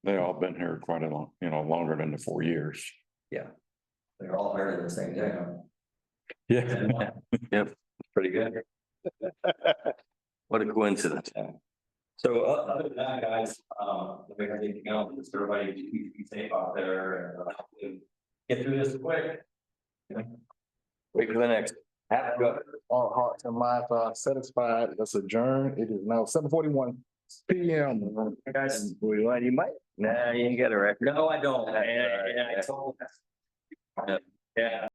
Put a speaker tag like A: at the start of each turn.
A: They all been here quite a long, you know, longer than the four years.
B: They're all hired in the same day. huh?
A: Yeah.
C: Pretty good. What a coincidence.
B: So o- other than that, guys, um, if there's anything else, just everybody be be safe out there and uh, hopefully get through this quick.
C: Wait for the next. Have a good-
D: All hearts and minds are satisfied. Let's adjourn. It is now seven forty-one P M.
C: Guys, we want you might. Nah, you ain't got a record.
B: No, I don't.
C: And- and I
B: Yeah.